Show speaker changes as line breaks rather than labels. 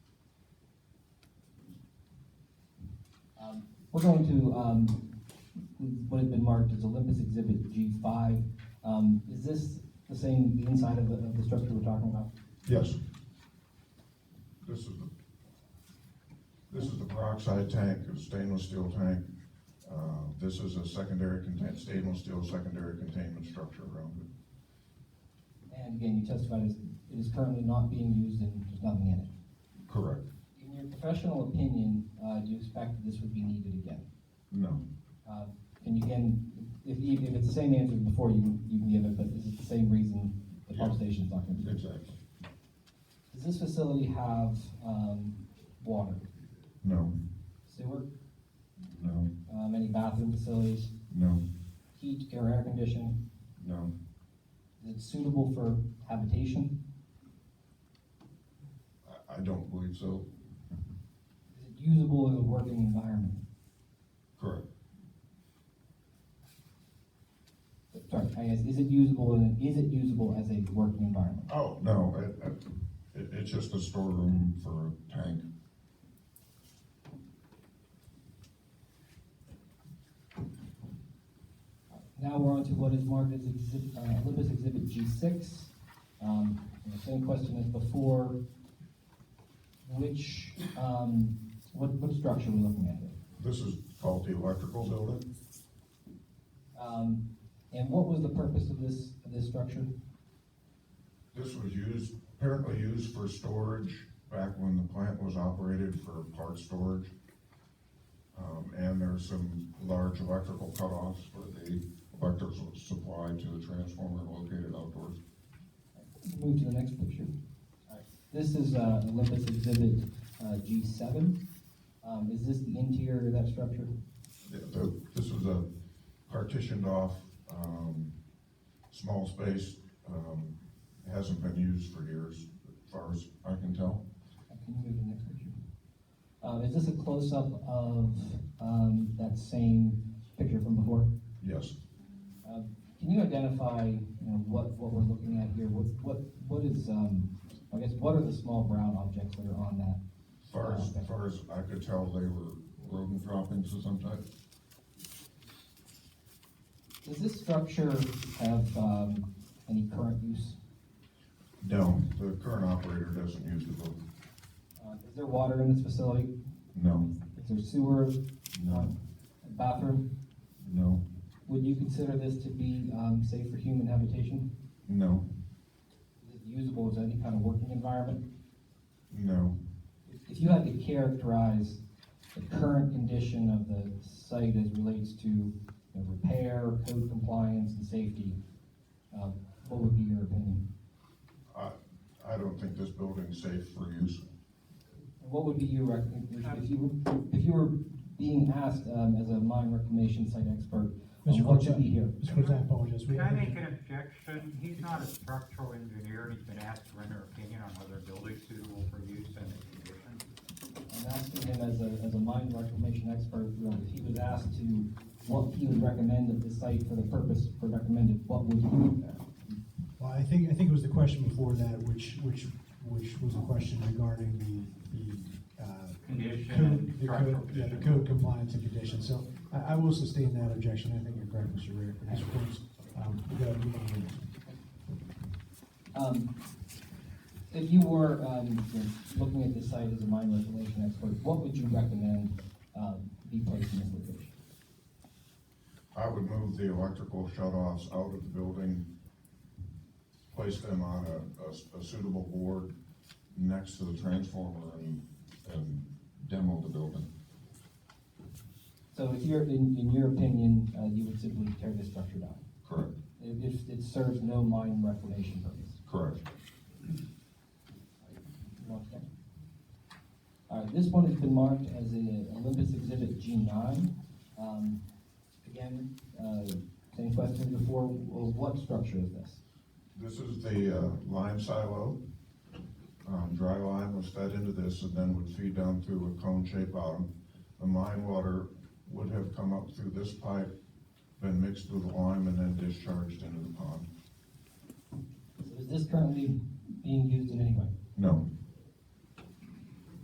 We're going to, um, what has been marked as Olympus Exhibit G five. Um, is this the same, the inside of the, of the structure we're talking about?
Yes. This is the, this is the peroxide tank, a stainless steel tank. Uh, this is a secondary contain, stainless steel secondary containment structure around it.
And again, you testified as it is currently not being used and there's nothing in it.
Correct.
In your professional opinion, uh, do you expect that this would be needed again?
No,
Uh, And you can, if, even if it's the same answer as before, you, can- you can give it, but is it the same reason the pump
Yeah.
station's not gonna be? used?
exactly.
Does this facility have, um, water,
No,
sewer,
no,
um, any bathroom facilities,
no,
heat or air conditioning?
no,
Is it suitable for habitation?
I, I don't believe so.
Is it usable as a working environment?
Correct.
Sorry, I guess, is it usable, in- is it usable as a working environment?
Oh, no, it, it, it's just a storeroom for a tank.
Now we're on to what is marked as exhibit, uh, Olympus Exhibit G six. Um, and the same question as before. Which, um, what, what structure are we looking at here?
This is called the electrical building.
Um, and what was the purpose of this, of this structure?
This was used, apparently used for storage back when the plant was operated for part storage. Um, and there's some large electrical cutoffs for the electric su- supply to the transformer located outdoors.
Move to the next picture. This is, uh, Olympus Exhibit, uh, G seven. Um, is this the interior of that structure?
The- the- This was a partitioned off, um, small space, um, hasn't been used for years, as far as I can tell.
Uh, Can you move to the next picture? Um, is this a close-up of, um, that same picture from before?
Yes,
Uh, Can you identify, you know, what, what we're looking at here? What, what, what is, um, I guess, what are the small brown objects that are on that?
as far as, as far as I could tell, they were rodent droppings of some type.
Does this structure have, um, any current use?
No, the current operator doesn't use the boat.
Uh, is there water in this facility?
No,
Is there sewer,
no,
bathroom?
no,
Would you consider this to be, um, safe for human habitation?
no,
Is it usable as any kind of working environment?
no.
If you had to characterize the current condition of the site as relates to you know, repair, code compliance, and safety, um, what would be your opinion?
I, I don't think this building's safe for use.
And What would be your rec, if if you, were- if you were being asked, um, as a mine reclamation site expert, um,
Mr.
what should
Cortez,
be here?
Mr. Cortez, I apologize. We
Can I
have-
make an objection? He's not a structural engineer, and he's been asked to render opinion on whether a building's suitable for use and the condition.
I'm asking him as a, as a mine reclamation expert, you know, if he was asked to, what he would recommend at the site for the purpose for recommended, what would you?
Well, I think, I think it was the question before that, which, which, which was a question regarding the, the, uh,
Condition
code,
and
the
structural
code, yeah, the
condition.
code compliance and conditions. So I, I will sustain that objection. I think you're correct, Mr. Ritter. Mr. Cortez, um, we got a meeting here.
Um, If you were, um, you know, looking at this site as a mine regulation expert, what would you recommend, um, be placed in this location?
I would move the electrical shut-offs out of the building, place them on a- a, s- a suitable board next to the transformer and, and demo the building.
So if you're, in, in your opinion, uh, you would simply tear this structure down?
Correct,
If, if it serves no mine reclamation purpose?
correct.
Okay. All right, this one has been marked as a Olympus Exhibit G nine. Um, again, uh, same question before, well, what structure is this?
This is the uh, lime silo. Um, Dry lime was fed into this and then would feed down through a cone-shaped bottom. The mine water would have come up through this pipe, been mixed with the lime, and then discharged into the pond.
So Is this currently being used in any way?
No,